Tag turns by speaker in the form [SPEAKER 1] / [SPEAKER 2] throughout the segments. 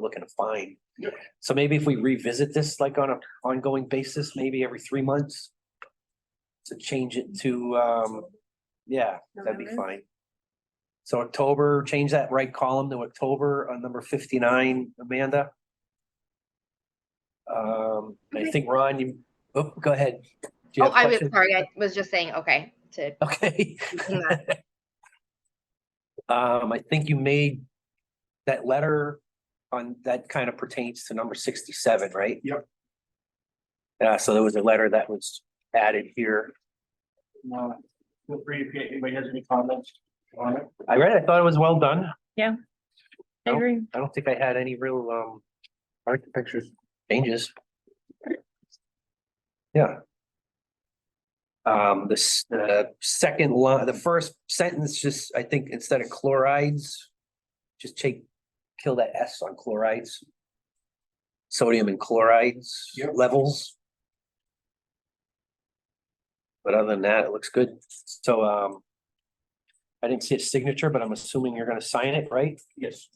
[SPEAKER 1] looking to find.
[SPEAKER 2] Yeah.
[SPEAKER 1] So maybe if we revisit this like on a ongoing basis, maybe every three months. To change it to, um, yeah, that'd be
[SPEAKER 3] November?
[SPEAKER 1] fine. So October, change that right column to October on number fifty-nine, Amanda. Um, I
[SPEAKER 3] Okay.
[SPEAKER 1] think Ron, you, oh, go ahead. Do you
[SPEAKER 3] Oh,
[SPEAKER 1] have a
[SPEAKER 3] I was,
[SPEAKER 1] question?
[SPEAKER 3] sorry, I was just saying, okay, to.
[SPEAKER 1] Okay.
[SPEAKER 3] in that-
[SPEAKER 1] Um, I think you made that letter on, that kind of pertains to number sixty-seven, right?
[SPEAKER 2] Yep.
[SPEAKER 1] Uh, so there was a letter that was added here.
[SPEAKER 2] Uh, Feel free if anybody has any comments on it.
[SPEAKER 1] I read, it, I thought it was well done.
[SPEAKER 4] I
[SPEAKER 1] No.
[SPEAKER 4] agree.
[SPEAKER 1] I don't think I had any real, um, architecture changes. Yeah. Um, this, the second line, the first sentence, just, I think instead of chlorides, just take, kill that S on chlorides. Sodium and chlorides
[SPEAKER 2] Yep.
[SPEAKER 1] levels. But other than that, it looks good. So, um, I didn't see a signature, but I'm assuming you're gonna sign it, right?
[SPEAKER 2] Yes.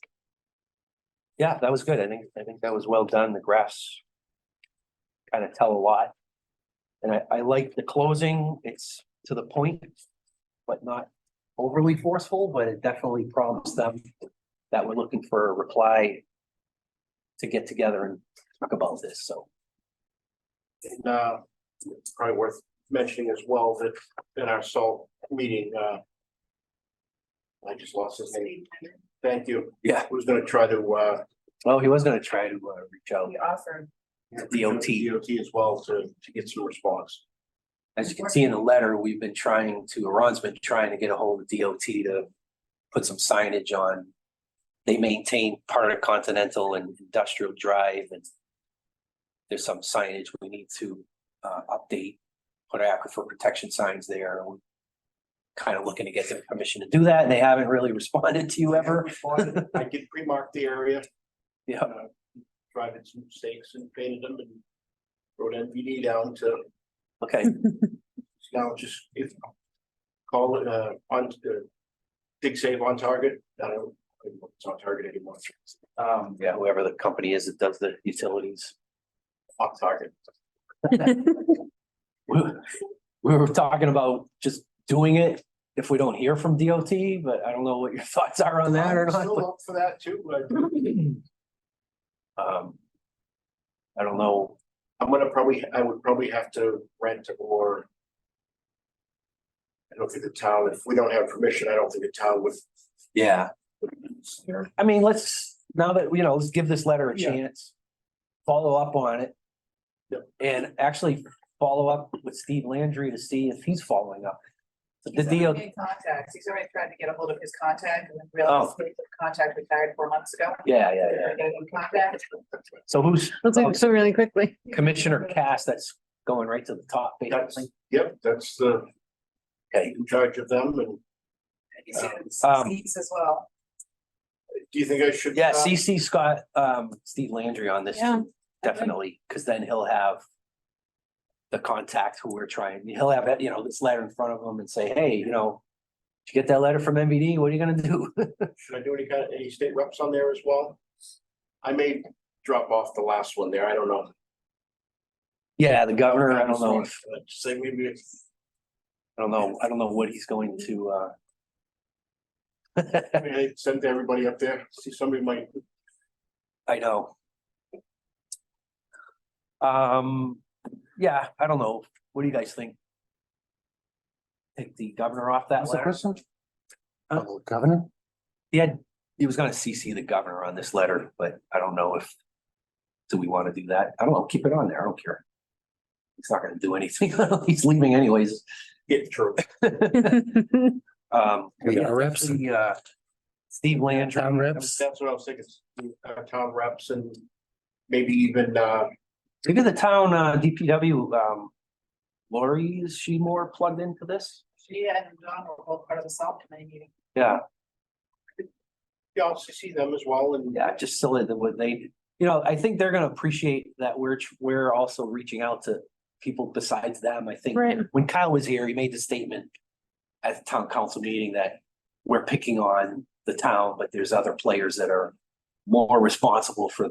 [SPEAKER 1] Yeah, that was good. I think, I think that was well done. The graphs kind of tell a lot. And I, I like the closing. It's to the point, but not overly forceful, but it definitely prompts them that we're looking for a reply to get together and talk about this, so.
[SPEAKER 2] And, uh, it's probably worth mentioning as well that in our salt meeting, uh. I just lost his name. Thank you.
[SPEAKER 1] Yeah.
[SPEAKER 2] Who's gonna try to, uh.
[SPEAKER 1] Well, he was gonna try to uh, reach out. DOT.
[SPEAKER 2] DOT as well to, to get some response.
[SPEAKER 1] As you can see in the letter, we've been trying to, Ron's been trying to get a hold of DOT to put some signage on. They maintain part of Continental and Industrial Drive and there's some signage we need to uh update, put aquifer protection signs there. We're Kind of looking to get their permission to do that. and They haven't really responded to you ever.
[SPEAKER 2] I did pre-mark the area.
[SPEAKER 1] Yeah.
[SPEAKER 2] uh, Driving some stakes and painted them and wrote NPD down to
[SPEAKER 1] Okay,
[SPEAKER 2] Now, just if, call it, uh, on, uh, dig save on target, I don't, it's on target anymore. Um,
[SPEAKER 1] yeah, whoever the company is that does the utilities.
[SPEAKER 2] off target.
[SPEAKER 1] we we were talking about just doing it if we don't hear from DOT, but I don't know what your thoughts are on that or
[SPEAKER 2] I'm Still
[SPEAKER 1] not.
[SPEAKER 2] up for that too, but
[SPEAKER 1] but, Um, I don't know.
[SPEAKER 2] I'm gonna probably, I would probably have to rent or I don't think the town, if we don't have permission, I don't think the town would.
[SPEAKER 1] Yeah. I mean, let's, now that, you know, let's give this letter a
[SPEAKER 2] Yeah.
[SPEAKER 1] chance. Follow up on it.
[SPEAKER 2] Yep.
[SPEAKER 1] And actually follow up with Steve Landry to see if he's following up. The
[SPEAKER 5] He's already
[SPEAKER 1] DOT,
[SPEAKER 5] made Contacts, he's already tried to get a hold of his contact and then
[SPEAKER 1] Oh.
[SPEAKER 5] realized his contact retired four months ago.
[SPEAKER 1] yeah, yeah, yeah.
[SPEAKER 5] Gotta get him contact.
[SPEAKER 1] So who's oh,
[SPEAKER 4] Let's move so really quickly.
[SPEAKER 1] Commissioner Cass that's going right to the top, basically?
[SPEAKER 2] Yep, that's the,
[SPEAKER 1] Okay.
[SPEAKER 2] in charge of them, and
[SPEAKER 5] He sees
[SPEAKER 1] Um,
[SPEAKER 5] sees as well.
[SPEAKER 2] do you think I should?
[SPEAKER 1] Yeah,
[SPEAKER 2] uh,
[SPEAKER 1] CC Scott, um, Steve Landry on this,
[SPEAKER 4] Yeah.
[SPEAKER 1] definitely, because then he'll have. The contact who we're trying, he'll have, you know, this letter in front of him and say, hey, you know. Did you get that letter from MVD? What are you gonna do?
[SPEAKER 2] uh, Should I do any kind of, any state reps on there as well? I may drop off the last one there, I don't know.
[SPEAKER 1] Yeah, the governor, I don't know, if-
[SPEAKER 2] Uh, Say maybe it's,
[SPEAKER 1] I don't know, I don't know what he's going to, uh.
[SPEAKER 2] I mean, I sent everybody up there, see somebody might,
[SPEAKER 1] I know. Um, yeah, I don't know. What do you guys think? Take the governor off that letter?
[SPEAKER 6] Uh,
[SPEAKER 1] Huh?
[SPEAKER 6] Governor?
[SPEAKER 1] He had, he was gonna CC the governor on this letter, but I don't know if. Do we wanna do that? I don't know, keep it on there, I don't care. He's not gonna do anything, he's leaving anyways.
[SPEAKER 2] get through.
[SPEAKER 1] Um.
[SPEAKER 6] We got our reps.
[SPEAKER 1] The, uh, Steve Landry.
[SPEAKER 6] Town
[SPEAKER 2] That's
[SPEAKER 6] reps?
[SPEAKER 2] that's what I was thinking, uh, town reps and maybe even, uh,
[SPEAKER 1] Maybe the town, uh, DPW, um. Lori, is she more plugged into this?
[SPEAKER 5] She and Don were both part of the salt committee meeting.
[SPEAKER 1] Yeah,
[SPEAKER 2] yeah, I'll see them as well and.
[SPEAKER 1] yeah, just so that what they, you know, I think they're gonna appreciate that we're, tr- we're also reaching out to people besides them, I think.
[SPEAKER 4] Right.
[SPEAKER 1] when Kyle was here, he made the statement at the town council meeting that we're picking on the town, but there's other players that are more responsible for